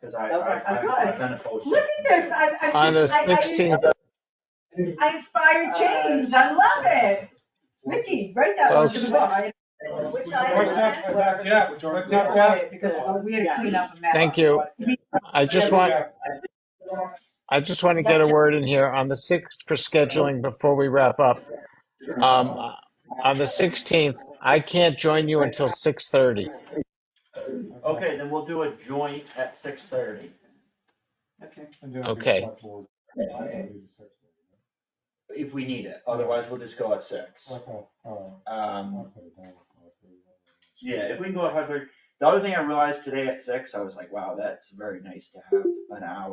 Cause I, Okay. I, Good. I- I've been opposed. to Look it. at this, I, I. On the I- I- 16th, I inspire change, I love it. Mickey, write that one to the book. I- Which Right I. back, right back, yeah, which are- I love it Because we had to clean up a mess. Thank you. I just want, I just want to get a word in here on the 6th for scheduling before we wrap up. Um, On the 16th, I can't join you until 6:30. Okay, then we'll do a joint at six thirty. Okay. Okay. If we need it, otherwise we'll just go at six. Um, yeah, if we can go at five thirty. The other thing I realized today at six, I was like, wow, that's very nice to have an hour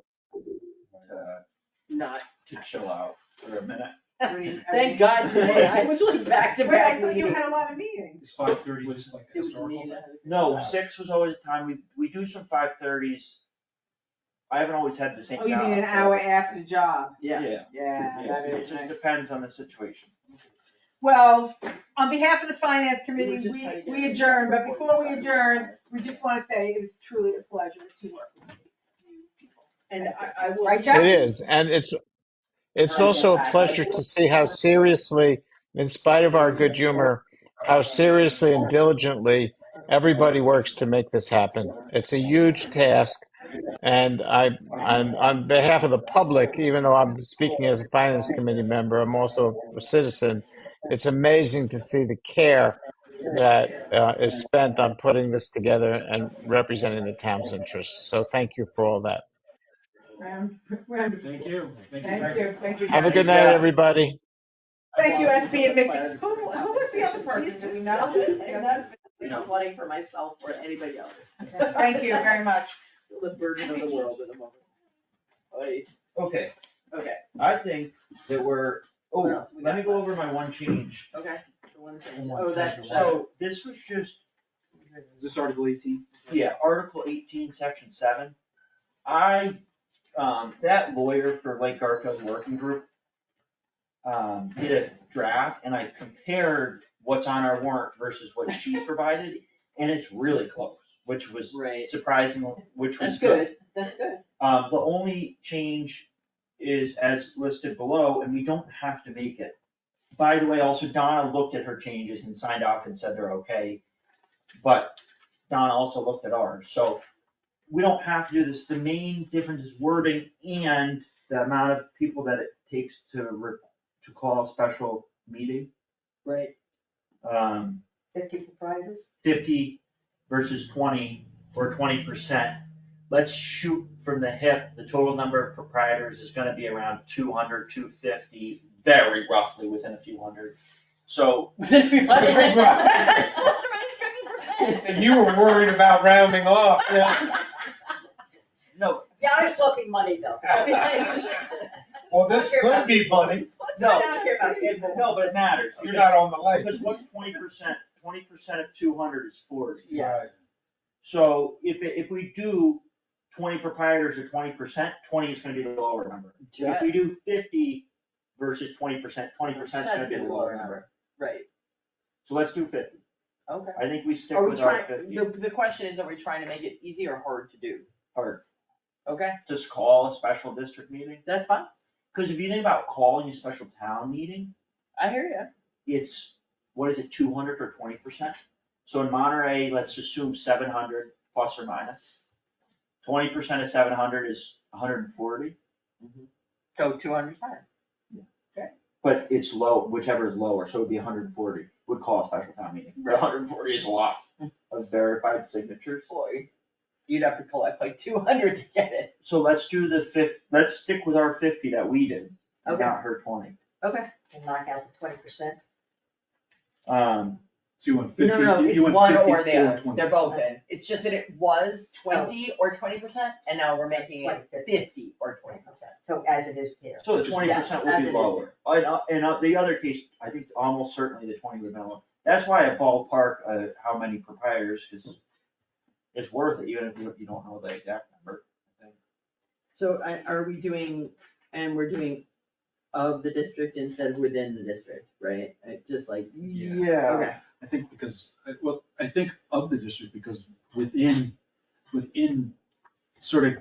to, Not. to chill out for a minute. I mean, I mean- Thank God today, I was like back to Wait, I back thought you meeting. had a lot of meetings. It's five thirty, just like It was me historical. that- No, six was always the time, we, we do some five thirties. I haven't always had the same. Oh, you mean job. an hour after job? Yeah, Yeah, yeah, Yeah, that it is just nice. depends on the situation. Well, on behalf of the finance We committee, were just trying we, to get we it adjourn, but before before we we adjourn, we just wanna say it is truly a pleasure to work with you people. and I, I will. Right, Jack? It is, and it's, it's also a pleasure to see how seriously, in spite of our good humor, how seriously and diligently everybody works to make this happen. It's a huge task, and I, on, on behalf of the public, even though I'm speaking as a finance committee member, I'm also a citizen. It's amazing to see the care that uh, is spent on putting this together and representing the town's interests. So thank you for all that. Round- round- Thank you. Thank you, thank you. Have a guys. good night, everybody. Thank you, SB and Mickey. Who, who was the other person? Do we know? Not wanting for myself or anybody else, Thank you very much. the burden of the world at the moment. Oy. Okay, Okay, I think that we're, What oh, else we let me got? go over my one change. okay, the one thing, The one oh, thing that's, you so, So this was just This article eighteen? Yeah, Article eighteen, section seven. I, um, that lawyer for Lake Garfield Working Group um, did a draft and I compared what's on our warrant versus what she provided, and it's really close, which was right, surprising, which was that's good. good, that's good. Um, the only change is as listed below, and we don't have to make it. By the way, also Donna looked at her changes and signed off and said they're okay, but Donna also looked at ours, so we don't have to do this. The main difference is wording and the amount of people that it takes to re- to call a special meeting. Right. Um, Fifty proprietors? fifty versus twenty or twenty percent. Let's shoot from the hip, the total number of proprietors is gonna be around 200, 250, very roughly within a few hundred. So, That's plus or minus 50%. And you were worried about rounding off, yeah. no, Yeah, I was talking money though. I mean, I just- Well, this could be money, Plus or No. minus 50%. no, but it matters, you're not because, on the light. because what's twenty percent, twenty percent of two hundred is forty. Yes, So if, it- if we do twenty proprietors or twenty percent, twenty is gonna be the lower number. If we Yes. do fifty versus twenty percent, twenty percent is gonna be the lower number, right, so let's do fifty. okay. I think we stick Are we with our trying, fifty, the, the question is, are we trying to make it easy or hard to do? or Okay, just call a special district meeting, that's fine, cause if you think about calling a special town meeting, I hear you. it's, what is it, two hundred or twenty percent? So in Monterey, let's assume seven hundred plus or minus, twenty percent of seven hundred is hundred and forty, Go two hundred times. but it's low, whichever is lower, so it'd be hundred and forty, would call a special town meeting. Right. hundred and forty is a lot of verified signatures, Boy, you'd have to collect like two hundred to get it. so let's do the fifth, let's stick with our fifty that we did, and Okay. not her twenty. Okay. And knock out the twenty percent. Um, So you want No, no, no, it's you want one 50 or the other, 20%. they're both in, it's just that it was twenty or twenty percent, and now we're making it fifty or twenty percent. So as it is here. So the Yes, twenty percent as will it be is. lower. And, uh, and uh, the other case, I think almost certainly the twenty would be lower. That's why I ballpark, uh, how many proprietors, cause it's worth it, even if you, you don't know the exact number. So I- are we doing, and we're doing of the district instead of within the district, right? Uh, Just like, okay, I think because, well, I think of the district because within, within sort of